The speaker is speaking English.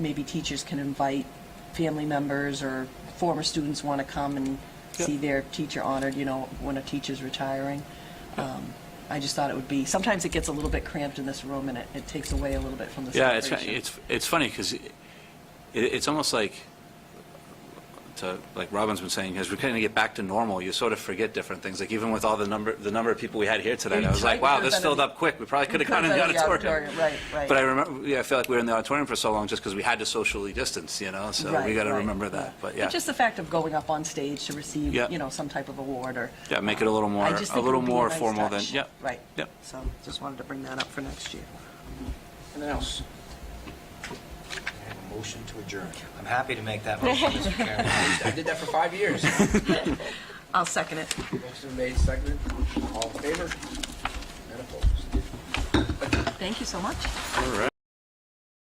maybe teachers can invite family members or former students want to come and Yep. see their teacher honored, you know, when a teacher's retiring. Um, I just thought it would be, sometimes it gets a little bit cramped in this room and it, it takes away a little bit from the Yeah, it's, celebration. it's, it's funny, because it, it's almost like, to, like Robin's been saying, as we're kind of get back to normal, you sort of forget different things, like even with all the number, the number of people we had here tonight, I was like, wow, this filled up quick, we probably could have gone in the auditorium. Right, right. But I remember, yeah, I feel like we were in the auditorium for so long just because we had to socially distance, you know, so we Right, got to right, remember that, but yeah. Just the fact of going up on stage to receive, Yeah. you know, some type of award or. Yeah, make it a little more, I just a think it little would be a more nice formal than, touch. yeah. Right. Yep. So just wanted to bring that up for next year. Anything else? I have a motion to adjourn. I'm happy to make that motion, Mr. Chairman. I did that for five years. I'll second it. Motion made, seconded, all in favor? And opposed. Thank you so much. All right.